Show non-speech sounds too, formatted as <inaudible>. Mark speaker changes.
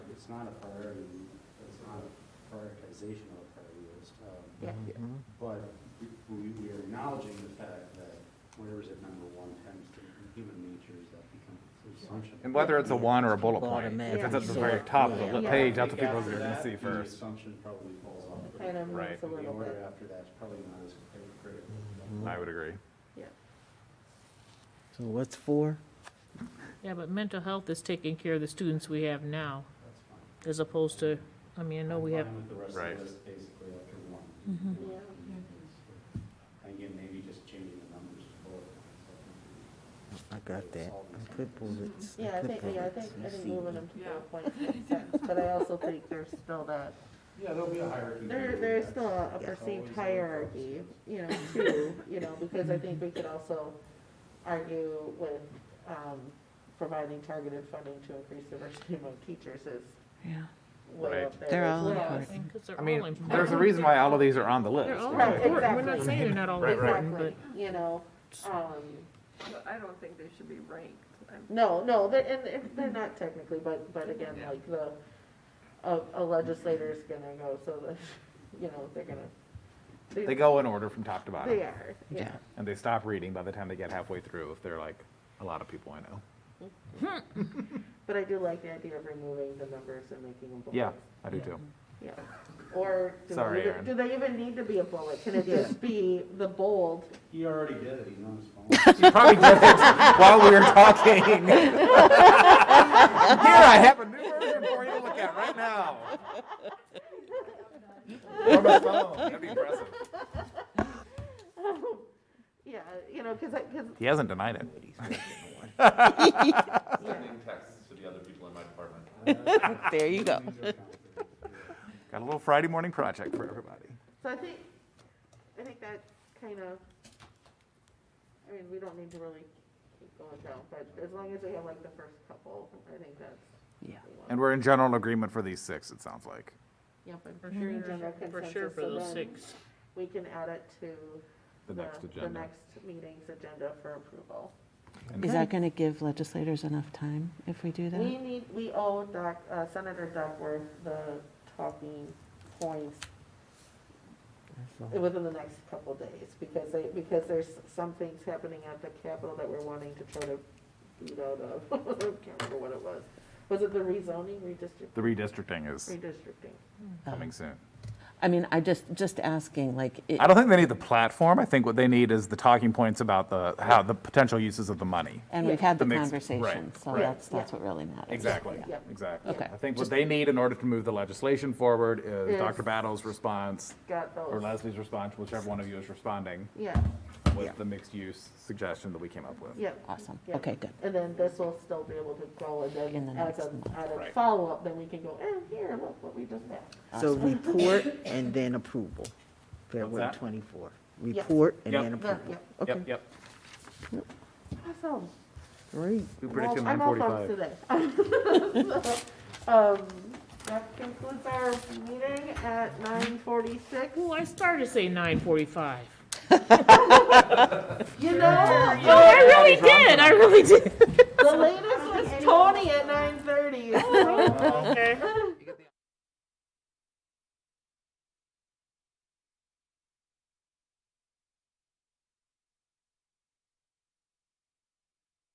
Speaker 1: not a priority, it's not a prioritization of a priority list. um,
Speaker 2: Yeah.
Speaker 3: Mhm.
Speaker 1: But we- we, we are acknowledging the fact that whatever's at number one tends to, human nature is that become assumption.
Speaker 4: And whether it's a one or a bullet point,
Speaker 3: Automatic
Speaker 4: if it's at the very
Speaker 3: sort,
Speaker 4: top of the
Speaker 3: yeah.
Speaker 4: li-
Speaker 2: Yeah.
Speaker 4: page, that's what
Speaker 1: After
Speaker 4: people are gonna
Speaker 1: that,
Speaker 4: see
Speaker 1: the
Speaker 4: first.
Speaker 1: Assumption probably falls off.
Speaker 2: It kind of
Speaker 4: Right.
Speaker 2: moves a
Speaker 1: The
Speaker 2: little
Speaker 1: order
Speaker 2: bit.
Speaker 1: after that's probably not as critical.
Speaker 4: I would agree.
Speaker 3: So what's four?
Speaker 5: Yeah, but mental health is taking care of the students we have now,
Speaker 1: That's fine.
Speaker 5: as opposed to, I mean, I know we have,
Speaker 1: I'm fine with the rest
Speaker 4: Right.
Speaker 1: of the list basically after one.
Speaker 2: Yeah.
Speaker 1: And Again, maybe just changing the numbers to bullet points. I think
Speaker 3: I got that. I put bullets.
Speaker 2: Yeah, I
Speaker 3: put
Speaker 2: think, yeah, I think,
Speaker 3: bullets.
Speaker 2: I
Speaker 3: Let's
Speaker 2: think
Speaker 3: see.
Speaker 2: moving them to bullet points makes sense, but I also think there's still that,
Speaker 1: we- Yeah, there'll be a hierarchy.
Speaker 2: there,
Speaker 1: here.
Speaker 2: there's
Speaker 1: That's-
Speaker 2: still a
Speaker 1: that's always
Speaker 2: perceived
Speaker 1: the
Speaker 2: hierarchy, you know, too, you know, because I think we could also argue with, um, providing targeted funding to increase diversity among teachers is
Speaker 6: Yeah.
Speaker 2: way up
Speaker 4: Right.
Speaker 2: there.
Speaker 6: They're
Speaker 2: as
Speaker 6: all
Speaker 2: well.
Speaker 6: important.
Speaker 5: because they're
Speaker 4: I
Speaker 5: all
Speaker 4: mean,
Speaker 5: important.
Speaker 4: there's a reason why all of these are on the list.
Speaker 5: They're all
Speaker 2: Right,
Speaker 5: important, we're not
Speaker 2: exactly.
Speaker 5: saying they're not all
Speaker 4: Right, right.
Speaker 5: important,
Speaker 2: Exactly,
Speaker 5: but
Speaker 2: you know, um,
Speaker 7: But I don't think they should be ranked. I'm-
Speaker 2: No, no, they're, and if they're not technically, but, but again,
Speaker 4: Yeah.
Speaker 2: like the, a, a legislator's gonna go, so the, you know, they're gonna.
Speaker 4: They go in order from top to
Speaker 2: They
Speaker 4: bottom,
Speaker 2: are, yeah.
Speaker 4: and they stop reading by the time they get halfway through, if they're like, a lot of people I know.
Speaker 2: But I do like the idea of removing the numbers and making them bullets.
Speaker 4: Yeah, I do too.
Speaker 2: Yeah. Or do
Speaker 4: Sorry,
Speaker 2: they, even-
Speaker 4: Erin.
Speaker 2: do they even need to be a bullet?
Speaker 4: <laughs>
Speaker 2: Can it just be the bold?
Speaker 1: He already did it, he
Speaker 2: <laughs>
Speaker 1: knows.
Speaker 4: You probably did it while we were talking. Here, I have a new version for you to look at right now. On my phone, that'd be impressive.
Speaker 2: Yeah, you know, cause I, cause,
Speaker 4: He hasn't denied it. <laughs>
Speaker 8: <laughs>
Speaker 2: yeah,
Speaker 8: texts to the other people in my department.
Speaker 6: There you go.
Speaker 4: Got a little Friday morning project for everybody.
Speaker 2: so I think, I think that kind of, I mean, we don't need to really keep going down, but as long as we have like the first couple, I think that's.
Speaker 6: Yeah.
Speaker 2: what we want.
Speaker 4: And we're in general agreement for these six, it sounds like.
Speaker 2: Yep, and for sure, in general
Speaker 5: for sure
Speaker 2: consensus,
Speaker 5: for
Speaker 2: so
Speaker 5: those
Speaker 2: then
Speaker 5: six.
Speaker 2: we can add it to.
Speaker 4: The next
Speaker 2: The
Speaker 4: agenda.
Speaker 2: next meeting's agenda for approval.
Speaker 6: Is that going to give legislators enough time if we do
Speaker 2: We
Speaker 6: that?
Speaker 2: need, we owe Doc, uh, Senator Duckworth the talking points within the next couple days, because they, because there's some things happening at the Capitol that we're wanting to try to beat out of. <laughs> I Can't remember what it was. Was it the rezoning, redistricting?
Speaker 4: The redistricting is
Speaker 2: Redistricting.
Speaker 4: coming soon.
Speaker 6: Um,
Speaker 2: Oh.
Speaker 6: I mean, I just, just asking, like, it-
Speaker 4: I don't think they need the platform. I think what they need is the talking points about the, how, the potential uses of the money.
Speaker 6: and we've had the
Speaker 4: The mix-
Speaker 6: conversation,
Speaker 4: right,
Speaker 6: so
Speaker 4: right.
Speaker 6: that's,
Speaker 2: Yeah.
Speaker 6: that's what really matters.
Speaker 4: Exactly,
Speaker 2: Yeah.
Speaker 4: exactly.
Speaker 6: Okay.
Speaker 4: I think what they need in order to move the legislation forward is
Speaker 2: Is-
Speaker 4: Dr. Battle's response,
Speaker 2: Got those.
Speaker 4: or Leslie's response, whichever one of you is responding,
Speaker 2: Yeah,
Speaker 4: with the mixed-use suggestion that we came up with.
Speaker 2: yeah.
Speaker 6: Awesome.
Speaker 2: Yeah.
Speaker 6: Okay, good.
Speaker 2: And then this will still be able to go, and
Speaker 6: In the
Speaker 2: then as
Speaker 6: next
Speaker 2: a,
Speaker 6: month.
Speaker 2: as a
Speaker 4: Right.
Speaker 2: follow-up, then we can go, eh, here, look what we just had.
Speaker 3: So report
Speaker 2: <laughs>
Speaker 3: and then approval, February
Speaker 4: that?
Speaker 3: twenty-four.
Speaker 2: Yeah.
Speaker 3: Report and
Speaker 4: Yep.
Speaker 3: then
Speaker 2: Yeah,
Speaker 3: approval.
Speaker 2: yeah,
Speaker 3: Okay,
Speaker 4: Yep, yep.
Speaker 2: awesome.
Speaker 3: great.
Speaker 4: We
Speaker 2: I'm all-
Speaker 4: predicted nine
Speaker 2: I'm all pumped
Speaker 4: forty-five.
Speaker 2: today. <laughs> Um, that concludes our meeting at nine forty-six.
Speaker 5: Well, I started to say nine forty-five.
Speaker 2: You know,
Speaker 5: No, oh, I really did, I really did. <laughs> Oh,
Speaker 2: the latest was Tony at nine thirty.
Speaker 5: Okay.